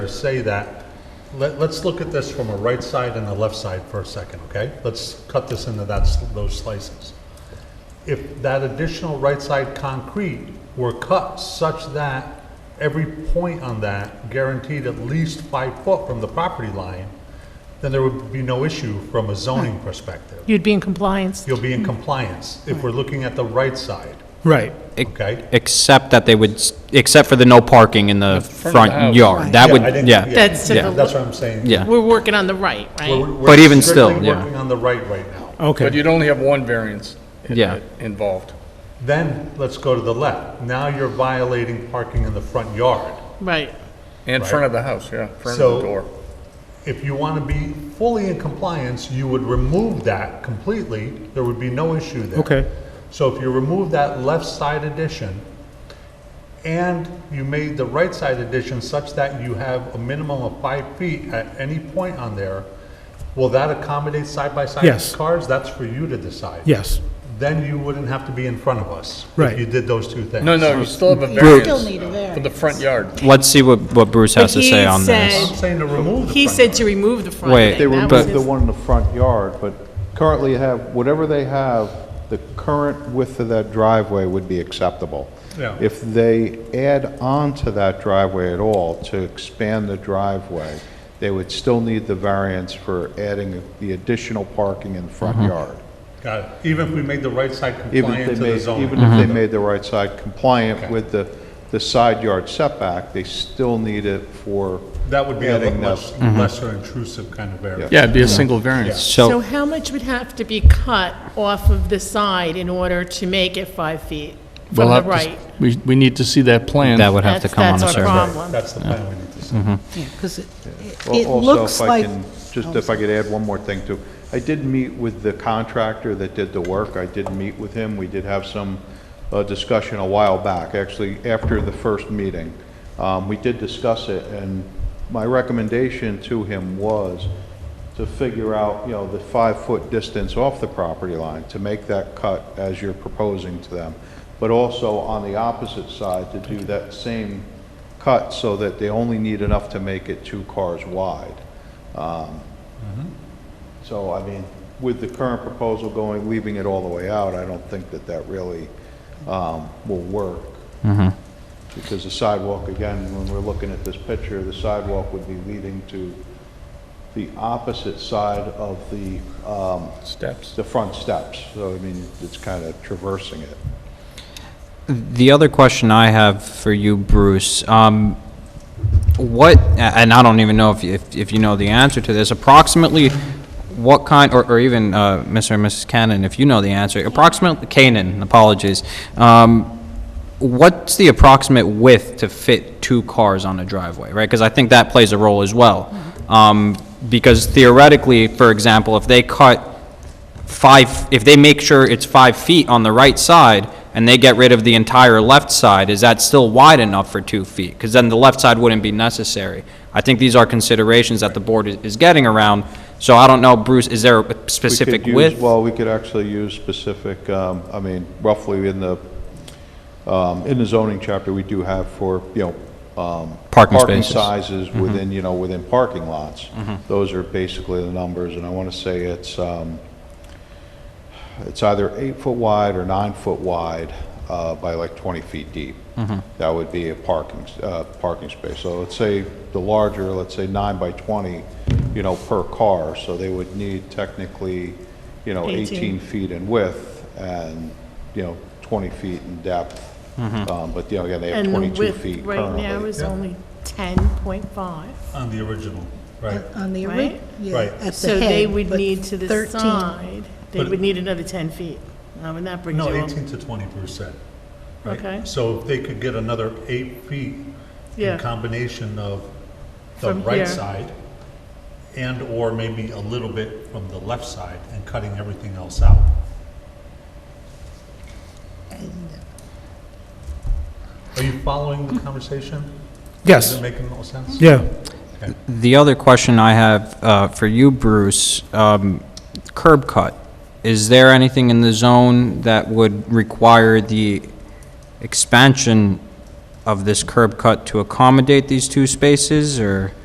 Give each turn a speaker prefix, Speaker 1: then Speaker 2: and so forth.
Speaker 1: to say that, let, let's look at this from a right side and a left side for a second, okay? Let's cut this into that, s- those slices. If that additional right side concrete were cut such that every point on that guaranteed at least five foot from the property line, then there would be no issue from a zoning perspective.
Speaker 2: You'd be in compliance.
Speaker 1: You'll be in compliance if we're looking at the right side,
Speaker 3: Right.
Speaker 1: okay?
Speaker 4: Except that they would, s- except for the no parking in
Speaker 3: front
Speaker 4: the
Speaker 3: of the
Speaker 4: front
Speaker 3: house.
Speaker 4: yard. That
Speaker 1: Yeah,
Speaker 4: would,
Speaker 1: I didn't-
Speaker 4: yeah,
Speaker 2: That's to
Speaker 4: yeah,
Speaker 2: the-
Speaker 1: That's what I'm saying.
Speaker 4: yeah.
Speaker 2: We're working on the right,
Speaker 1: We're-
Speaker 2: right?
Speaker 1: we're
Speaker 4: But even still,
Speaker 1: strictly
Speaker 4: yeah.
Speaker 1: Working on the right right now.
Speaker 3: Okay.
Speaker 5: But you'd only have one variance i-
Speaker 4: Yeah.
Speaker 5: involved.
Speaker 1: Then let's go to the left. Now you're violating parking in the front yard.
Speaker 2: Right.
Speaker 5: In front of the house, yeah, front of
Speaker 1: So-
Speaker 5: the door.
Speaker 1: If you want to be fully in compliance, you would remove that completely. There would be no issue there.
Speaker 3: Okay.
Speaker 1: So if you remove that left side addition and you made the right side addition such that you have a minimum of five feet at any point on there, will that accommodate side-by-side
Speaker 3: Yes.
Speaker 1: cars? That's for you to decide.
Speaker 3: Yes.
Speaker 1: Then you wouldn't have to be in front of us.
Speaker 3: Right.
Speaker 1: If you did those two things.
Speaker 5: No, no, you still have a
Speaker 4: Bruce-
Speaker 6: Still need a
Speaker 5: variance for the
Speaker 6: variance.
Speaker 5: front yard.
Speaker 4: Let's see what, what Bruce has to
Speaker 2: But he
Speaker 4: say on
Speaker 2: said-
Speaker 4: this.
Speaker 1: I'm saying to remove the
Speaker 2: He
Speaker 1: front
Speaker 2: said
Speaker 1: yard.
Speaker 2: to remove the front.
Speaker 4: Wait.
Speaker 2: thing.
Speaker 7: They
Speaker 2: That
Speaker 7: remove
Speaker 2: was
Speaker 7: the
Speaker 2: his-
Speaker 7: one in the front yard, but currently have, whatever they have, the current width of that driveway would be acceptable.
Speaker 1: Yeah.
Speaker 7: If they add on to that driveway at all to expand the driveway, they would still need the variance for adding the additional parking in the front
Speaker 2: Mm-hmm.
Speaker 7: yard.
Speaker 1: Got it. Even if we made the right side
Speaker 7: Even if
Speaker 1: compliant
Speaker 7: they
Speaker 1: to the
Speaker 7: made,
Speaker 1: zoning. Mm-hmm.
Speaker 7: even if
Speaker 2: Mm-hmm.
Speaker 7: they made the right side compliant
Speaker 1: Okay.
Speaker 7: with the, the side yard setback, they still need it for
Speaker 1: That would be a
Speaker 7: adding Mm-hmm. that-
Speaker 1: much lesser intrusive kind of variance.
Speaker 5: Yeah, it'd be a single variance.
Speaker 2: So
Speaker 4: So,
Speaker 2: how much would have to be cut off of the side in order to make it five feet from the right?
Speaker 5: We, we need to see that plan.
Speaker 4: that would have to
Speaker 2: That's-
Speaker 4: come on a
Speaker 2: that's our
Speaker 4: survey.
Speaker 2: problem.
Speaker 1: That's the plan we need to see.
Speaker 7: Mm-hmm.
Speaker 6: Yeah, because it
Speaker 7: Al-
Speaker 6: it
Speaker 7: Also,
Speaker 6: looks
Speaker 7: if I
Speaker 6: like,
Speaker 7: can, just if I could add one more thing too. I did meet with the contractor that did the work. I did meet with him. We did have some uh, discussion a while back, actually after the first meeting. Um, We did discuss it, and my recommendation to him was to figure out, you know, the five-foot distance off the property line, to make that cut as you're proposing to them, but also on the opposite side, to do that same cut so that they only need enough to make it two cars wide. Um, So, I mean, with the current proposal going, leaving it all the way out, I don't think that that really um, will work. Because the sidewalk, again, when we're looking at this picture, the sidewalk would be leading to the opposite side of the, um,
Speaker 5: Steps.
Speaker 7: the front steps. So, I mean, it's kind of traversing it.
Speaker 4: The other question I have for you, Bruce, um, what, a- and I don't even know if, if, if you know the answer to this, approximately what kind, or, or even, uh, Mr. and Mrs. Cannon, if you know the answer, approximately, Canaan, apologies, um, what's the approximate width to fit two cars on a driveway, right? Because I think that plays a role as well. Um, because theoretically, for example, if they cut five, if they make sure it's five feet on the right side, and they get rid of the entire left side, is that still wide enough for two feet? Because then the left side wouldn't be necessary. I think these are considerations that the board is- is getting around, so I don't know, Bruce, is there a
Speaker 7: We could
Speaker 4: specific
Speaker 7: use-
Speaker 4: width?
Speaker 7: Well, we could actually use specific, um, I mean, roughly in the, um, in the zoning chapter, we do have for, you know, um,
Speaker 4: Parking spaces. Mm-hmm.
Speaker 7: sizes within, you know, within parking lots. Those are basically the numbers, and I want to say it's, um, it's either eight foot wide or nine foot wide uh, by like 20 feet deep. That would be a parking, s- uh, parking space. So let's say the larger, let's say nine by 20, you know, per car, so they would need technically, you know,
Speaker 2: 18.
Speaker 7: 18 feet in width and, you know, 20 feet in depth. Um, But, you know, again, they have
Speaker 2: And the
Speaker 7: 22
Speaker 2: width
Speaker 7: feet
Speaker 2: right
Speaker 7: currently.
Speaker 2: now is
Speaker 1: Yeah.
Speaker 2: only 10.5.
Speaker 1: On the original, right.
Speaker 6: on the
Speaker 2: Right?
Speaker 6: ori, yeah,
Speaker 1: Right.
Speaker 6: at the head.
Speaker 2: So they would
Speaker 6: but
Speaker 2: need to the
Speaker 6: 13.
Speaker 2: side, they
Speaker 1: But-
Speaker 2: would need another 10 feet. Now, and that brings you
Speaker 1: No,
Speaker 2: up.
Speaker 1: 18 to 20 percent. Right.
Speaker 2: Okay.
Speaker 1: So if they could get another eight feet in
Speaker 2: Yeah.
Speaker 1: combination of the
Speaker 2: From here.
Speaker 1: right side and/or maybe a little bit from the left side and cutting everything else out. Are you following the conversation? Is
Speaker 3: Yes.
Speaker 1: it making all sense?
Speaker 3: Yeah.
Speaker 4: The other question I have uh, for you, Bruce, um, curb cut. Is there anything in the zone that would require the expansion of this curb cut to accommodate these two spaces, or?